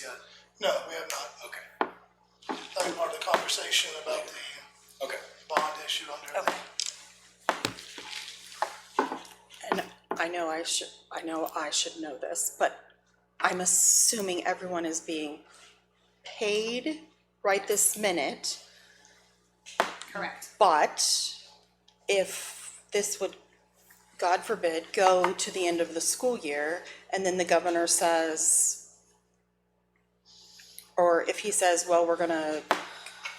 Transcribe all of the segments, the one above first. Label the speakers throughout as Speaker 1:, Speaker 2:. Speaker 1: Yeah.
Speaker 2: No, we have not.
Speaker 1: Okay.
Speaker 2: That was part of the conversation about the
Speaker 1: Okay.
Speaker 2: bond issue under the.
Speaker 3: Okay. And I know I should, I know I should know this, but I'm assuming everyone is being paid right this minute.
Speaker 4: Correct.
Speaker 3: But if this would, God forbid, go to the end of the school year, and then the governor says, or if he says, well, we're gonna,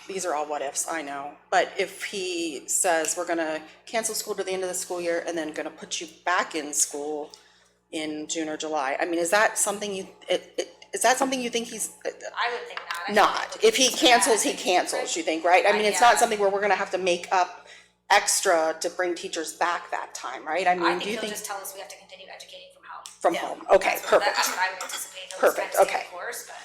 Speaker 3: these are all what ifs, I know, but if he says, we're gonna cancel school to the end of the school year and then gonna put you back in school in June or July, I mean, is that something you, it, it, is that something you think he's, uh,
Speaker 4: I would think not. I think
Speaker 3: not.
Speaker 4: it
Speaker 3: If he
Speaker 4: would be
Speaker 3: cancels, he
Speaker 4: bad.
Speaker 3: cancels, you think, right? I mean, it's
Speaker 4: Yeah.
Speaker 3: not something where we're gonna have to make up extra to bring teachers back that time, right? I
Speaker 4: I
Speaker 3: mean,
Speaker 4: think
Speaker 3: do you
Speaker 4: he'll
Speaker 3: think
Speaker 4: just tell us we have to continue educating from home.
Speaker 3: from home? Okay,
Speaker 4: That's what- That's
Speaker 3: perfect.
Speaker 4: what I would anticipate. He'll
Speaker 3: Perfect,
Speaker 4: expect to stay
Speaker 3: okay.
Speaker 4: the course, but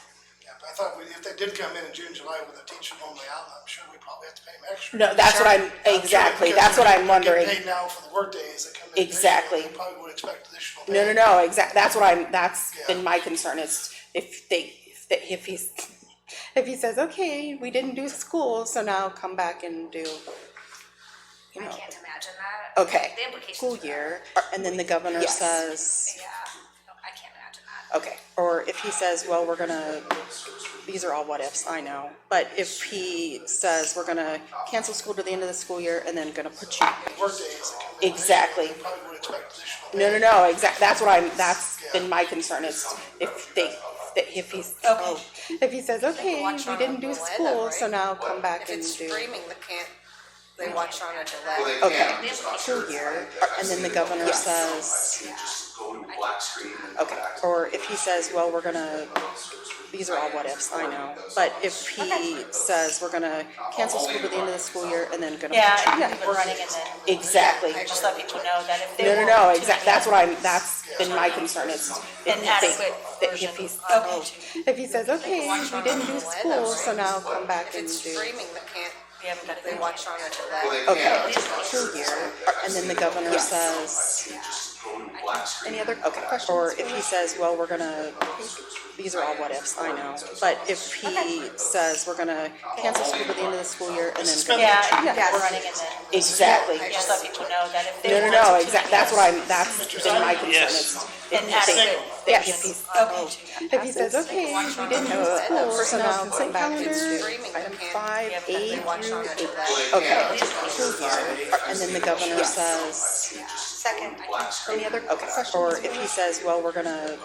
Speaker 2: Yeah, but I thought we- if they did come in in June, July with a teacher normally out, I'm sure we probably have to pay them extra.
Speaker 3: No, that's what I'm,
Speaker 2: I'm sure
Speaker 3: exactly,
Speaker 2: because
Speaker 3: that's what
Speaker 2: they're
Speaker 3: I'm wondering.
Speaker 2: Getting paid now for the workdays that come in. additional,
Speaker 3: Exactly.
Speaker 2: They probably would expect additional.
Speaker 3: No, no,
Speaker 2: pay.
Speaker 3: no, exact, that's what I'm, that's
Speaker 2: Yeah.
Speaker 3: been my concern is if they, if they- if he's, if he says, okay, we didn't do school, so now come back and do, you
Speaker 4: I
Speaker 3: know,
Speaker 4: can't imagine that.
Speaker 3: okay,
Speaker 4: The implications.
Speaker 3: school
Speaker 4: of that.
Speaker 3: year, and then the governor Yes. says,
Speaker 4: Yeah, No, I can't imagine that.
Speaker 3: Okay, or if he says, well, we're gonna, these are all what ifs, I know, but if he says, we're gonna cancel school to the end of the school year and then gonna put you.
Speaker 2: Workdays that come in. additional,
Speaker 3: Exactly.
Speaker 2: They probably would expect additional.
Speaker 3: No,
Speaker 2: pay.
Speaker 3: no, no, exact, that's what I'm, that's been my concern is if they, that if he's, oh, if he says, okay,
Speaker 5: watch
Speaker 3: we
Speaker 5: on
Speaker 3: didn't do
Speaker 5: the weather,
Speaker 3: school, so
Speaker 5: right?
Speaker 3: now come back
Speaker 5: If
Speaker 3: and
Speaker 5: it's
Speaker 3: do.
Speaker 5: streaming, they can't, they watch on a delay.
Speaker 6: Well, they
Speaker 3: Okay.
Speaker 6: can, I'm just not sure.
Speaker 3: School year,
Speaker 6: I've
Speaker 3: and
Speaker 6: seen
Speaker 3: then the
Speaker 6: it.
Speaker 3: governor
Speaker 6: I've
Speaker 3: says-
Speaker 6: seen it just go to black screen and go
Speaker 3: Okay,
Speaker 6: back.
Speaker 3: or if he says, well, we're gonna, these are all what ifs, I know, but if he says, we're gonna cancel school to the end of the school year and then gonna.
Speaker 7: Yeah, I think we were running and then
Speaker 3: Exactly.
Speaker 7: just let people know that if they
Speaker 3: No,
Speaker 7: were.
Speaker 3: no, no, exact, that's what I'm, that's been my concern is. if
Speaker 7: An
Speaker 3: they-
Speaker 7: adequate
Speaker 3: that
Speaker 7: version
Speaker 3: If he's,
Speaker 7: of
Speaker 3: oh,
Speaker 7: YouTube.
Speaker 3: if he says, okay,
Speaker 5: watch
Speaker 3: we
Speaker 5: on
Speaker 3: didn't do
Speaker 5: the web,
Speaker 3: school,
Speaker 5: right?
Speaker 3: so now come back
Speaker 5: If
Speaker 3: and
Speaker 5: it's
Speaker 3: do.
Speaker 5: streaming, they can't,
Speaker 7: We haven't got it.
Speaker 5: they watch on a
Speaker 6: Well,
Speaker 5: delay.
Speaker 6: they
Speaker 3: Okay,
Speaker 6: can, I'm just not sure.
Speaker 3: school year, and then the governor says,
Speaker 6: I've seen it just go to black screen
Speaker 3: any other
Speaker 6: and go back.
Speaker 3: questions? Or if he says, well, we're gonna, these are all what ifs, I know, but if he says, we're gonna cancel school to the end of the school year and then.
Speaker 2: Suspend
Speaker 3: go-
Speaker 7: Yeah, I
Speaker 2: Yeah.
Speaker 7: think we were running and then
Speaker 3: Exactly.
Speaker 7: just let people know that if they
Speaker 3: No,
Speaker 7: were.
Speaker 3: no, no, exact, that's what I'm, that's been my concern
Speaker 8: Yes.
Speaker 3: is.
Speaker 7: An adequate
Speaker 3: Yeah,
Speaker 7: version
Speaker 3: if he's,
Speaker 7: of YouTube.
Speaker 3: if he says, okay, we didn't do school, so now come back and
Speaker 5: If it's
Speaker 3: do.
Speaker 5: streaming, they can't,
Speaker 3: Five,
Speaker 7: Yeah, but
Speaker 3: eight,
Speaker 5: they watch on a delay.
Speaker 6: Well, they
Speaker 3: Okay.
Speaker 6: can, I'm just not sure.
Speaker 3: and then the governor says,
Speaker 7: Second.
Speaker 6: Black screen
Speaker 3: any other, okay, or if he says, well, we're gonna,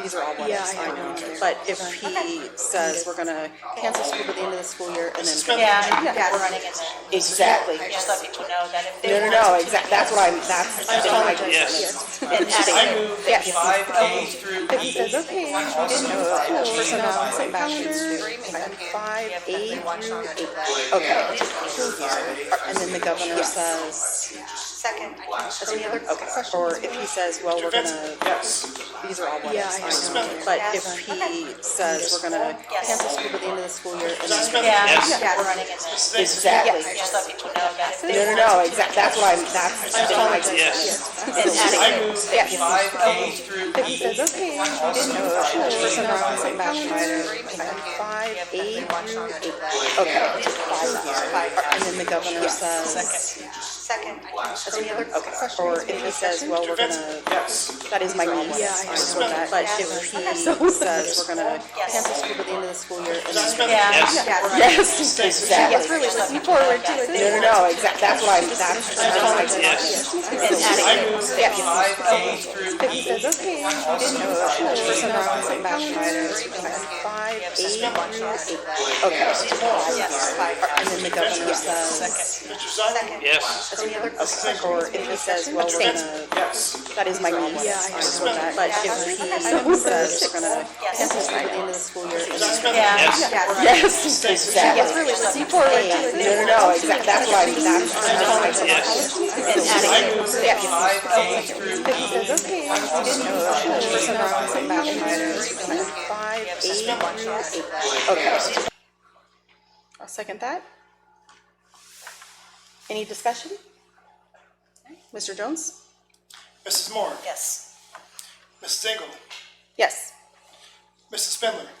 Speaker 3: these are all what ifs, I know, but if he says, we're gonna cancel school to the end of the school year and then.
Speaker 7: Yeah, I think we were running and then
Speaker 3: Exactly.
Speaker 7: just let people know that if they
Speaker 3: No,
Speaker 7: were.
Speaker 3: no, no, exact, that's what I'm, that's been my concern
Speaker 8: Yes.
Speaker 3: is.
Speaker 7: An
Speaker 8: I
Speaker 7: adequate.
Speaker 8: move
Speaker 3: Yes.
Speaker 8: five A through
Speaker 3: If he
Speaker 8: E.
Speaker 3: says, okay, we didn't do school, so now come back and do.
Speaker 5: Streaming, they can't,
Speaker 3: Five,
Speaker 5: they
Speaker 3: eight,
Speaker 5: watch on a delay.
Speaker 6: Well, they can,
Speaker 3: Okay.
Speaker 6: I'm just not sure.
Speaker 3: and then the governor says,
Speaker 7: Second.
Speaker 3: any other, okay, or if he says, well, we're gonna.
Speaker 8: Yes.
Speaker 3: These are all what ifs, I know, but if he says we're gonna
Speaker 7: Yes.
Speaker 3: cancel school to the end of the school year and then.
Speaker 7: Yeah, I think we
Speaker 3: Yes.
Speaker 7: were running and then
Speaker 3: Exactly.
Speaker 7: just let people know that if they
Speaker 3: No,
Speaker 7: were.
Speaker 3: no, no, exact, that's what I'm, that's been my concern.
Speaker 8: Yes.
Speaker 7: An
Speaker 8: I
Speaker 7: adequate.
Speaker 8: move five A through
Speaker 3: He
Speaker 8: E.
Speaker 3: says, okay, we didn't know that school, so now I'm going back
Speaker 5: Streaming, they
Speaker 3: to
Speaker 5: can't,
Speaker 3: five,
Speaker 5: they
Speaker 3: eight,
Speaker 5: watch on a delay.
Speaker 3: okay, five, and then the governor says.
Speaker 7: Second.
Speaker 3: Any other, okay, or if he says, well, we're gonna.
Speaker 8: Yes.
Speaker 3: That is my niece. Yeah, I know that. But if he says we're gonna
Speaker 7: Yes.
Speaker 3: cancel school at the end of the school year and then.
Speaker 7: Yeah.
Speaker 3: Yes,
Speaker 8: Yes.
Speaker 3: exactly.
Speaker 7: It's really looking forward to
Speaker 3: No, no, no, exact, that's what I'm, that's, that's my
Speaker 8: Yes.
Speaker 7: An
Speaker 8: I
Speaker 7: adequate.
Speaker 8: move five A through E.
Speaker 3: Says, okay, we didn't know that school, so now I'm going back to five, eight, okay, five, and then the governor says.
Speaker 2: Mr. Zeidler,
Speaker 8: Yes.
Speaker 3: Any other, okay, or if he says, well, we're gonna.
Speaker 8: Yes.
Speaker 3: That is my niece. Yeah, I know that. But if he says we're gonna cancel school at the end of the school year. and then-
Speaker 8: Yes.
Speaker 3: Yes, exactly. It's really looking forward to it. No, no, no, exactly, that's what I'm, that's, that's my concern.
Speaker 8: Yes.
Speaker 7: An adequate.
Speaker 8: Five A through E.
Speaker 3: Says, okay, we didn't know that school, so now I'm going back to five, eight, okay. I'll second that. Any discussion? Mr. Jones?
Speaker 2: Mrs. Moore,
Speaker 7: Yes.
Speaker 2: Mrs. Engel,
Speaker 3: Yes.
Speaker 2: Mrs. Spindler?